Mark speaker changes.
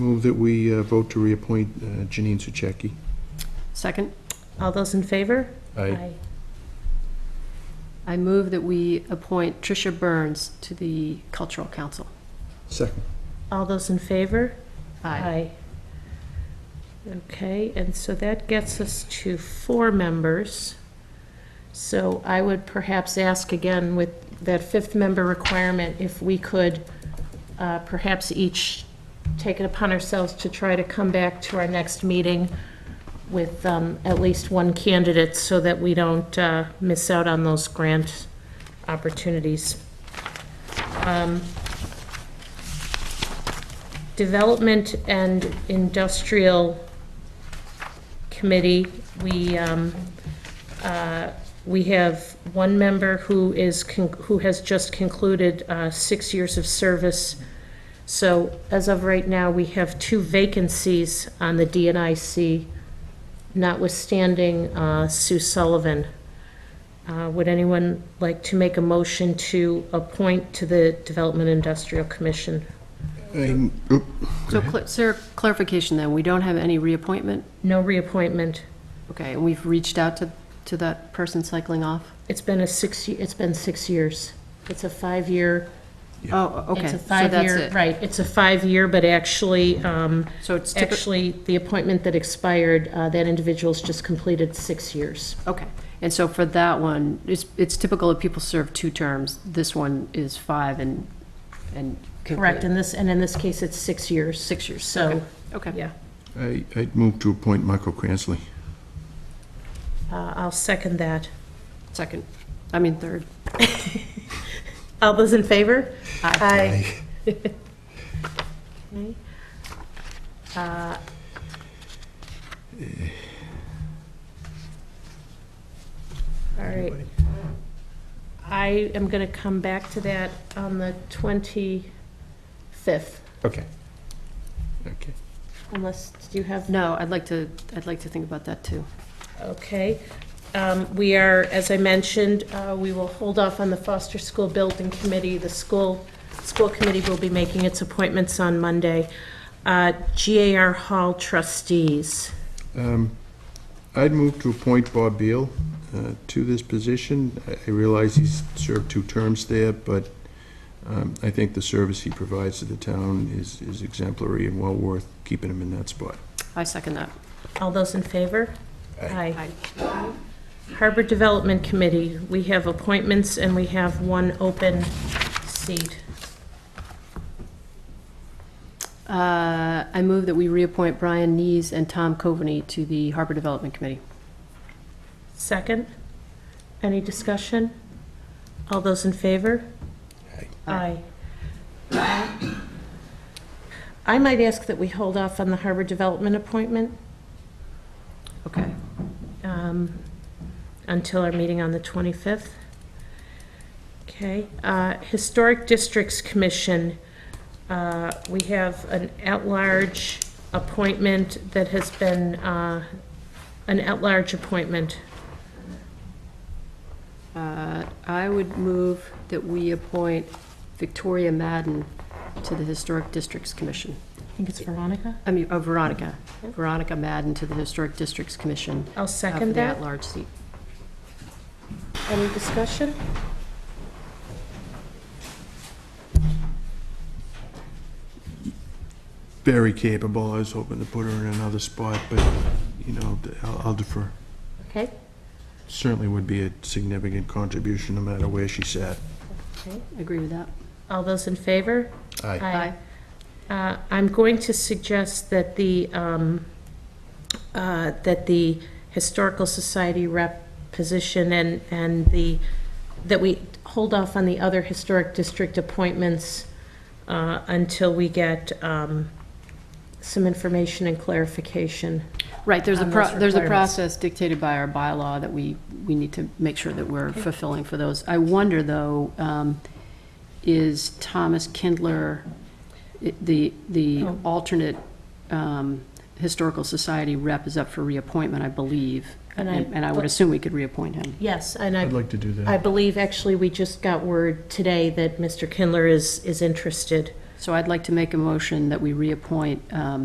Speaker 1: Move that we uh, vote to reappoint uh, Janine Sucheki.
Speaker 2: Second?
Speaker 3: All those in favor?
Speaker 1: I
Speaker 2: I move that we appoint Tricia Burns to the Cultural Council.
Speaker 1: Second.
Speaker 3: All those in favor?
Speaker 2: Aye.
Speaker 3: Okay, and so that gets us to four members. So I would perhaps ask again with that fifth member requirement, if we could uh, perhaps each take it upon ourselves to try to come back to our next meeting with um, at least one candidate so that we don't uh, miss out on those grant opportunities. Development and Industrial Committee, we, um, uh, we have one member who is, con- who has just concluded uh, six years of service. So as of right now, we have two vacancies on the DNIC, notwithstanding uh, Sue Sullivan. Uh, Would anyone like to make a motion to appoint to the Development Industrial Commission?
Speaker 1: I- oop,
Speaker 2: So, cl- sir, clarification then, we don't have any reappointment?
Speaker 3: No reappointment.
Speaker 2: Okay, and we've reached out to, to that person cycling off?
Speaker 3: It's been a six, ye- it's been six years. It's a five-year,
Speaker 2: Oh, okay,
Speaker 3: it's
Speaker 2: so
Speaker 3: a
Speaker 2: that's
Speaker 3: five-year,
Speaker 2: it.
Speaker 3: right, it's a five-year, but actually, um,
Speaker 2: So it's typical,
Speaker 3: actually, the appointment that expired, uh, that individual's just completed six years.
Speaker 2: okay. And so for that one, it's, it's typical that people serve two terms. This one is five and, and.
Speaker 3: Correct, in this, and in this case, it's six years. Six years, So,
Speaker 2: Okay.
Speaker 3: yeah,
Speaker 1: I- I'd move to appoint Michael Cransley.
Speaker 3: uh, I'll second that.
Speaker 2: Second, I mean, third.
Speaker 3: All those in favor?
Speaker 1: Aye.
Speaker 3: Okay. Uh, All right. I am going to come back to that on the 25th,
Speaker 1: Okay. Okay.
Speaker 3: unless you have
Speaker 2: No, I'd like to, I'd like to think about that too.
Speaker 3: Okay. Um, We are, as I mentioned, uh, we will hold off on the Foster School Building Committee. The school, school committee will be making its appointments on Monday. Uh, GAR Hall trustees.
Speaker 1: Um, I'd move to appoint Bob Beal uh, to this position. I- I realize he's served two terms there, but um, I think the service he provides to the town is is exemplary and well worth keeping him in that spot.
Speaker 2: I second that.
Speaker 3: All those in favor? Aye.
Speaker 2: Aye.
Speaker 3: Harbor Development Committee, we have appointments and we have one open seat.
Speaker 2: Uh, I move that we reappoint Brian Nees and Tom Coveney to the Harbor Development Committee.
Speaker 3: Second? Any discussion? All those in favor? Aye. I might ask that we hold off on the harbor development appointment
Speaker 2: Okay.
Speaker 3: um, until our meeting on the 25th. Okay. uh, Historic Districts Commission, uh, we have an at-large appointment that has been, uh, an at-large appointment.
Speaker 2: Uh, I would move that we appoint Victoria Madden to the Historic Districts Commission.
Speaker 3: I think it's Veronica.
Speaker 2: I mean, oh, Veronica,
Speaker 3: Yep.
Speaker 2: Veronica Madden to the Historic Districts Commission. uh,
Speaker 3: I'll
Speaker 2: for
Speaker 3: second
Speaker 2: the
Speaker 3: that.
Speaker 2: at-large seat.
Speaker 3: Any discussion?
Speaker 1: Very capable. I was hoping to put her in another spot, but, you know, I'll I'll defer.
Speaker 3: Okay.
Speaker 1: Certainly would be a significant contribution, no matter where she sat.
Speaker 3: Okay.
Speaker 2: Agree with that?
Speaker 3: All those in favor?
Speaker 1: Aye.
Speaker 3: Uh, I'm going to suggest that the, um, uh, that the Historical Society rep position and, and the, that we hold off on the other historic district appointments uh, until we get um, some information and clarification.
Speaker 2: Right, there's a,
Speaker 3: On
Speaker 2: pro-
Speaker 3: those
Speaker 2: there's a
Speaker 3: requirements.
Speaker 2: process dictated by our bylaw that we, we need to make sure that we're fulfilling for those. I wonder, though, um, is Thomas Kindler, i- the, the
Speaker 3: Oh.
Speaker 2: alternate um, Historical Society rep is up for reappointment, I believe,
Speaker 3: And
Speaker 2: and
Speaker 3: I-
Speaker 2: and I would assume we could reappoint him.
Speaker 3: Yes, and I,
Speaker 1: I'd like to do that.
Speaker 3: I believe actually we just got word today that Mr. Kindler is, is interested.
Speaker 2: So I'd like to make a motion that we reappoint um,